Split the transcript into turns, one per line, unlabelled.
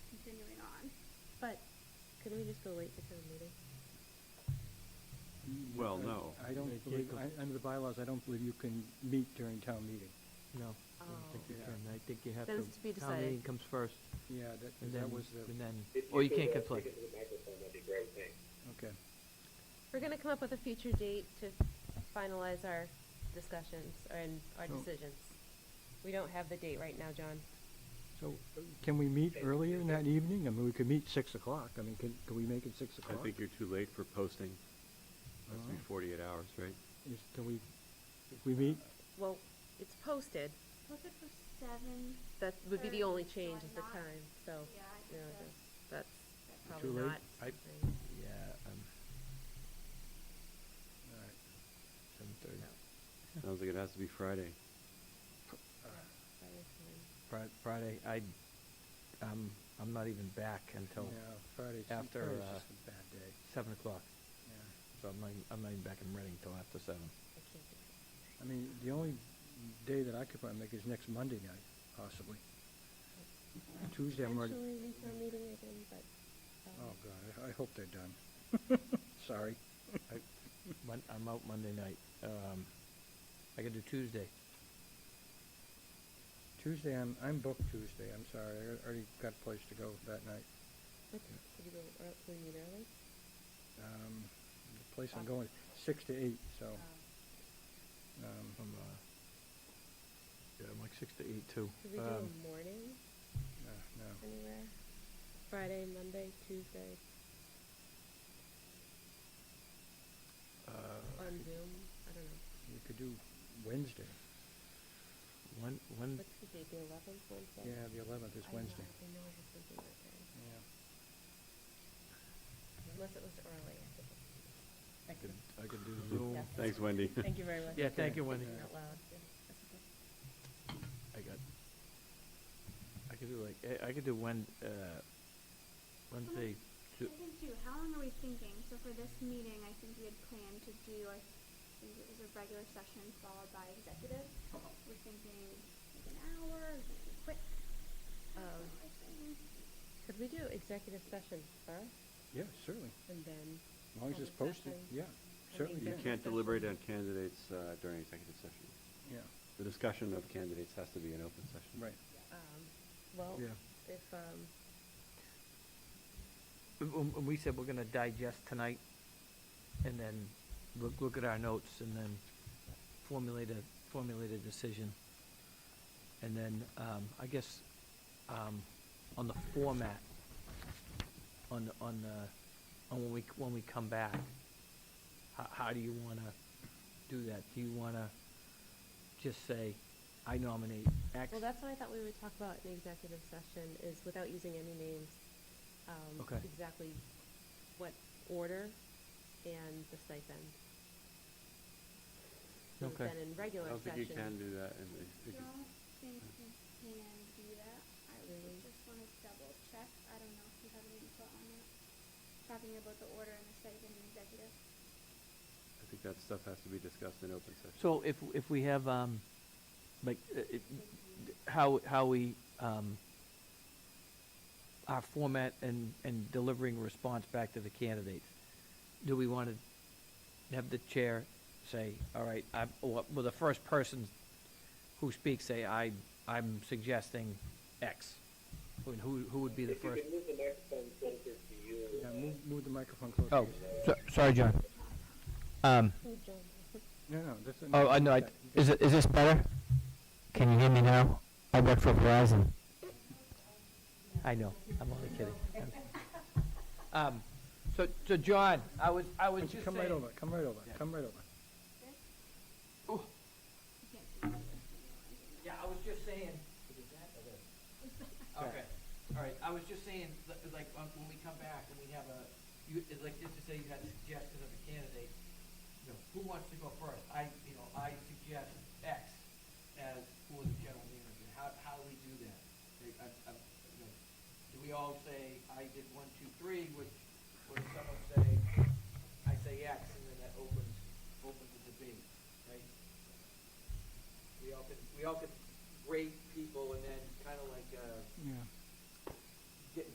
But couldn't we just go wait for town meeting?
Well,
because
no.
I
Yeah,
don't believe,
Jacob.
I- under the bylaws, I don't believe you can meet during town meeting.
No, I don't think you
Oh.
can. I think you have to.
That is to be
Town
decided.
meeting comes first,
Yeah, that,
and
that
then,
was the,
and then,
If
or you can't
uh,
conflict.
Speak into the microphone, that'd be a great, thanks.
okay.
We're gonna come up with a future date to finalize our discussions and our
So-
decisions. We don't have the date right now, John.
So uh, can we meet earlier in that evening? I mean, we could meet six o'clock. I mean, can, can we make it six
I
o'clock?
think you're too late for posting. Has to be
Oh.
forty-eight hours, right?
Is, can we, if we meet,
Well, it's posted.
Was it for seven?
That would be the only
Thursday,
change
so
is the
I'm not-
time, so,
Yeah, I
you know,
think that's.
that's
that's
probably
late?
not.
I-
something-
Yeah, um,
all right.
seven thirty.
Sounds like it has to be Friday.
probably fine.
Fri- Friday, I, um, I'm not even back until
Yeah, Friday's,
after,
Friday's
uh,
just a bad day,
seven o'clock.
yeah.
So I'm not, even- I'm not even back in Reading till after seven.
I can't do it.
I mean, the only day that I could probably make is next Monday night, possibly. Tuesday, I'm already,
Potentially in town meeting again, but,
oh,
um,
God, I, I hope they're done. Sorry.
Mon- I'm out Monday night. Um, I could do Tuesday.
Tuesday, I'm, I'm booked Tuesday, I'm sorry, I already got a place to go that night.
what- could you go, ear- will you meet early?
Um, the place I'm going, six to eight, so,
Oh.
um,
I'm, uh, yeah, I'm like six to eight too.
Could we do a
Um,
morning
uh, no.
anywhere? Friday, Monday, Tuesday,
uh,
on Zoom? I don't know.
You could do Wednesday.
When, when,
What's the date, the eleventh, Wednesday?
Mm. Yeah, the eleventh
I
is
know,
Wednesday.
I know I have something that day.
Yeah.
Unless it was early. I think.
I could, I could do Zoom.
Yeah.
Thanks, Wendy.
Thank you very much.
Yeah,
for
thank you, Wendy.
thinking Out loud. Yeah, that's okay.
I got, I could do like, I, I could do Wen, uh, Wednesday,
I think too, how long are we thinking? So for this meeting, I think we had planned to do, I think it was a regular session followed by executive. We're thinking like an hour, is it too quick.
Um, Could we do executive session first
Yeah, certainly,
and then?
as long as it's
Public
posted,
session.
yeah,
I think
certainly, yeah,
You
that-
can't deliberate on candidates uh, during executive session.
yeah,
The discussion of candidates has to be an open session.
right,
um, Well,
yeah.
if, um,
when, when we said we're gonna digest tonight, and then look, look at our notes, and then formulate a, formulate a decision. And then, um, I guess, um, on the format, on, the- on the, on when we, when we come back, how, how do you wanna do that? Do you wanna just say, I nominate X?
well, that's what I thought we would talk about in executive session is without using any names. um,
Okay.
Exactly what order and the stipend. So
Okay.
Then in
I
regular
don't think
session.
you can do that in
I
the-
don't think we can do that. I
Really?
would just wanna double check. I don't know if you have any input on that. Talking about the order and the stipend and executive.
I think that stuff has to be discussed in open session.
So if, if we have, um, like, uh, it- how, how we, um, our format and, and delivering response back to the candidates, do we want to have the chair say, all right, I, well, well, the first person who speaks say, I, I'm suggesting X? And who, who would be the
If you
first?
could move the microphone closer to you.
Yeah,
uh,
move, move the microphone closer.
Oh, so- sorry, John. Um,
Oh, John.
No, no, that's.
oh, I know, I- is it, is this better? Can you hear me now? I work for Verizon. I know, I'm only kidding. I'm- Um, so, so John, I was, I was just saying.
Come right over, come right over, come right over.
Yeah, I was just saying. Okay, all right, I was just saying, li- like, um, when we come back and we have a, you, it's like, just to say you had a suggestion of a candidate, you know, who wants to go first? I, you know, I suggest X as for the general manager. How, how do we do that? Like, I- I- you know, Do we all say, I did one, two, three, which, or does someone say, I say X, and then that opens, opens the debate, right? We all could, we all could rate people and then kind of like, uh,
Yeah,